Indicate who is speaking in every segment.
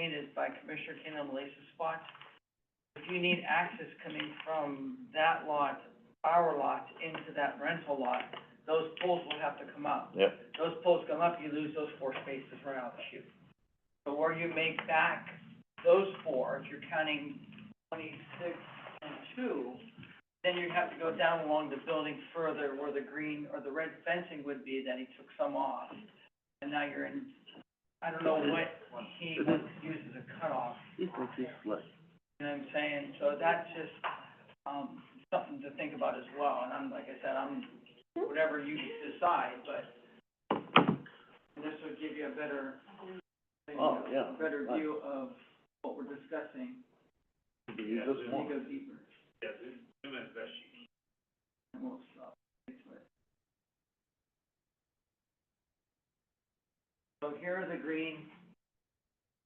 Speaker 1: stated by Commissioner Kane on the Lacey spot, if you need access coming from that lot, our lot, into that rental lot, those poles will have to come up.
Speaker 2: Yep.
Speaker 1: Those poles come up, you lose those four spaces right out of the chute. So where you make back those four, if you're counting twenty-six and two, then you have to go down along the building further where the green or the red fencing would be, then he took some off. And now you're in, I don't know what he wants to use as a cutoff, you know what I'm saying? So that's just, um, something to think about as well, and I'm, like I said, I'm, whatever you decide, but this would give you a better, you know,
Speaker 2: Oh, yeah,
Speaker 1: a better
Speaker 2: right.
Speaker 1: view of what we're discussing,
Speaker 2: You just
Speaker 1: and
Speaker 2: want-
Speaker 1: go deeper.
Speaker 3: Yeah, zoom, zoom in as best you can.
Speaker 1: and we'll stop. So here are the green,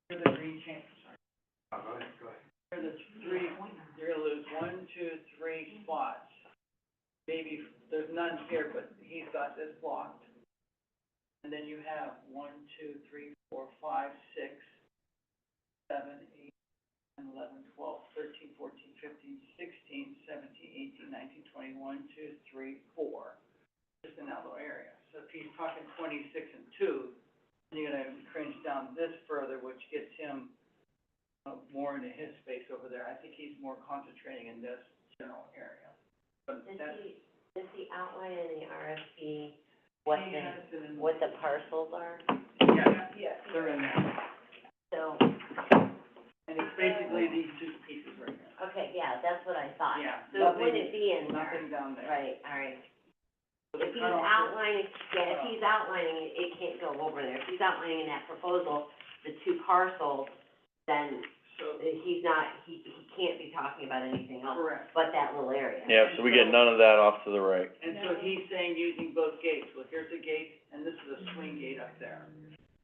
Speaker 1: here are the green changes, sorry.
Speaker 3: Oh, go ahead, go ahead.
Speaker 1: Here are the three, you're gonna lose one, two, three spots. Maybe, there's none here, but he's got this blocked. And then you have one, two, three, four, five, six, seven, eight, nine, eleven, twelve, thirteen, fourteen, fifteen, sixteen, seventeen, eighteen, nineteen, twenty, one, two, three, four. Just in that little area. So if he's talking twenty-six and two, then you're gonna cringe down this further, which gets him uh, more into his space over there. I think he's more concentrating in this general area. But
Speaker 4: Does
Speaker 1: that's.
Speaker 4: he, does he outline in the RFP what the,
Speaker 1: Yes, and-
Speaker 4: what the parcels are?
Speaker 1: Yeah, yeah, they're in there.
Speaker 4: So,
Speaker 1: And it's basically these two pieces right here.
Speaker 4: okay, yeah, that's what I thought.
Speaker 1: Yeah,
Speaker 4: So it
Speaker 1: nothing-
Speaker 4: wouldn't be in there,
Speaker 1: Nothing down there.
Speaker 4: right, all right.
Speaker 1: So the
Speaker 4: If he's
Speaker 1: cutoff is-
Speaker 4: outlining, yeah, if he's outlining, it, it can't go over there. If he's outlining in that proposal, the two parcels, then
Speaker 1: So,
Speaker 4: he's not, he, he can't be talking about anything else
Speaker 1: correct.
Speaker 4: but that little area.
Speaker 2: yeah, so we get none of that off to the right.
Speaker 1: And so he's saying using both gates, well, here's a gate, and this is a swing gate up there.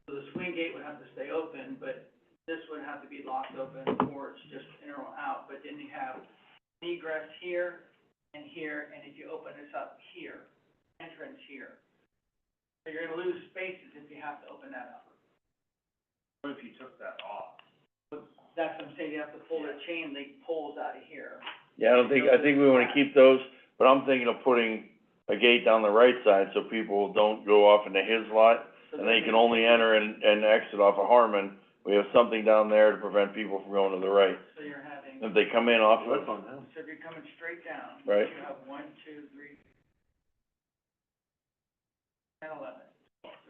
Speaker 1: So the swing gate would have to stay open, but this would have to be locked open, or it's just in or out, but then you have egress here and here, and if you open this up here, entrance here. So you're gonna lose spaces if you have to open that up.
Speaker 3: What if you took that off?
Speaker 1: That's what I'm saying, you have to pull the chain link poles out of here.
Speaker 2: Yeah, I don't think, I think we wanna keep those, but I'm thinking of putting a gate down the right side so people don't go off into his lot.
Speaker 1: so
Speaker 2: And
Speaker 1: that
Speaker 2: they can only enter and, and exit off of Harmon. We have something down there to prevent people from going to the right.
Speaker 1: So you're having,
Speaker 2: If they come in off of,
Speaker 3: on them.
Speaker 1: so if you're coming straight down.
Speaker 2: Right.
Speaker 1: You have one, two, three, and eleven.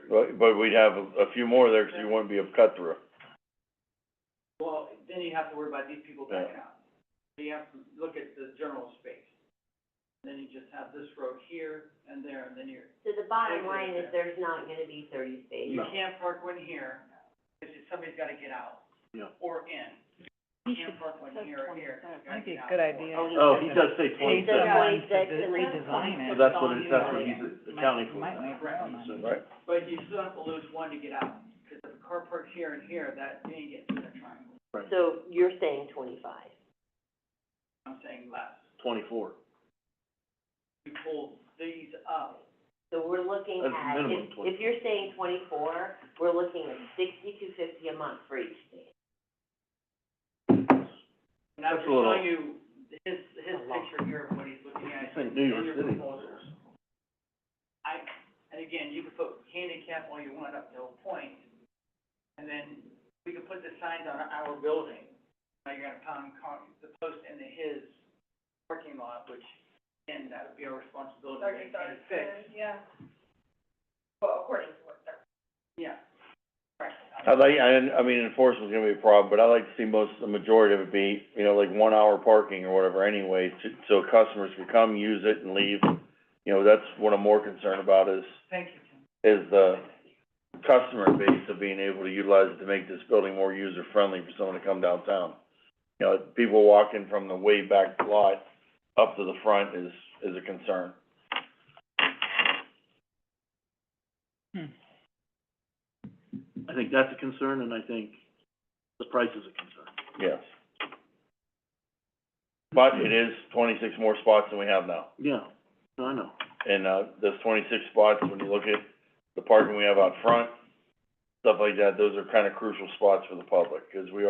Speaker 2: but, but we'd have a, a few more there, cause you wouldn't be a cut through.
Speaker 1: Well, then you have to worry about these people backing out. So you have to look at the general space. Then you just have this road here and there, and then you're,
Speaker 4: So the bottom line is there's not gonna be thirty spaces.
Speaker 1: you
Speaker 3: No.
Speaker 1: can't park one here, because somebody's gotta get out.
Speaker 3: Yeah.
Speaker 1: Or in. You can't park one here or here. Might
Speaker 5: be a good idea.
Speaker 3: Oh, he does say
Speaker 5: He
Speaker 3: twenty-six,
Speaker 5: said
Speaker 4: Yeah.
Speaker 5: twenty-six
Speaker 4: Yeah.
Speaker 5: and redesign it.
Speaker 3: so that's what, it- that's what he's accounting for.
Speaker 5: Might make
Speaker 1: Right.
Speaker 5: room on it.
Speaker 2: Right.
Speaker 1: But you still have to lose one to get out, because if a car parks here and here, that, you ain't getting to the triangle.
Speaker 4: So you're saying twenty-five?
Speaker 1: I'm saying less.
Speaker 3: Twenty-four.
Speaker 1: You pull these up,
Speaker 4: So we're looking
Speaker 3: That's
Speaker 4: at,
Speaker 3: minimum
Speaker 4: if, if you're saying twenty-four, we're looking at sixty-two fifty a month for each state.
Speaker 1: and I'm
Speaker 3: That's
Speaker 1: just
Speaker 3: a little-
Speaker 1: showing you his, his
Speaker 4: A lot.
Speaker 1: picture here of what he's looking at.
Speaker 3: Think New
Speaker 1: in
Speaker 3: York
Speaker 1: your
Speaker 3: City.
Speaker 1: proposals. I, and again, you can put handicap all you want up to a point, and then we could put the signs on our building. Now you're gonna pound con, the post into his parking lot, which, and that would be our responsibility to maintain and fix. uh, Yeah. Well, according to what they're. Yeah, right.
Speaker 2: I'd like, I, I mean, enforcement's gonna be a problem, but I like to see most, the majority of it be, you know, like one hour parking or whatever anyway, to, so customers can come, use it and leave. You know, that's what I'm more concerned about is,
Speaker 1: Thank you, Tim.
Speaker 2: is the
Speaker 3: Oh.
Speaker 2: customer base of being able to utilize it to make this building more user-friendly for someone to come downtown. You know, people walking from the way back lot up to the front is, is a concern.
Speaker 3: I think that's a concern, and I think the price is a concern.
Speaker 2: Yes. But it is twenty-six more spots than we have now.
Speaker 3: Yeah, no, I know.
Speaker 2: And, uh, those twenty-six spots, when you look at the parking we have out front, stuff like that, those are kinda crucial spots for the public, 'cause we are